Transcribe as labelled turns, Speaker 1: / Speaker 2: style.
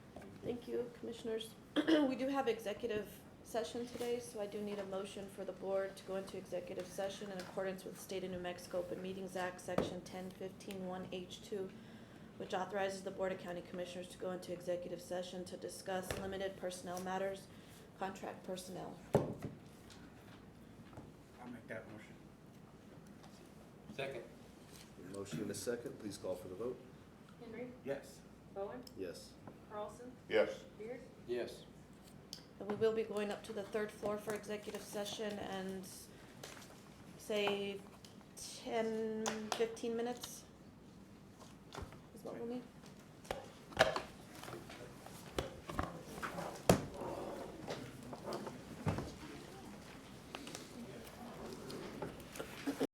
Speaker 1: Thank you, Commissioners. We do have executive session today, so I do need a motion for the board to go into executive session in accordance with State of New Mexico Open Meetings Act, Section 10151 h 2 which authorizes the Board of County Commissioners to go into executive session to discuss limited personnel matters, contract personnel.
Speaker 2: I'll make that motion.
Speaker 3: Second.
Speaker 4: Motion and a second, please call for the vote.
Speaker 5: Henry,
Speaker 2: Yes.
Speaker 5: Bowen,
Speaker 4: Yes.
Speaker 5: Carlson,
Speaker 6: Yes.
Speaker 5: Beard,
Speaker 3: Yes.
Speaker 1: And we will be going up to the third floor for executive session and say 10, 15 minutes is what we'll need.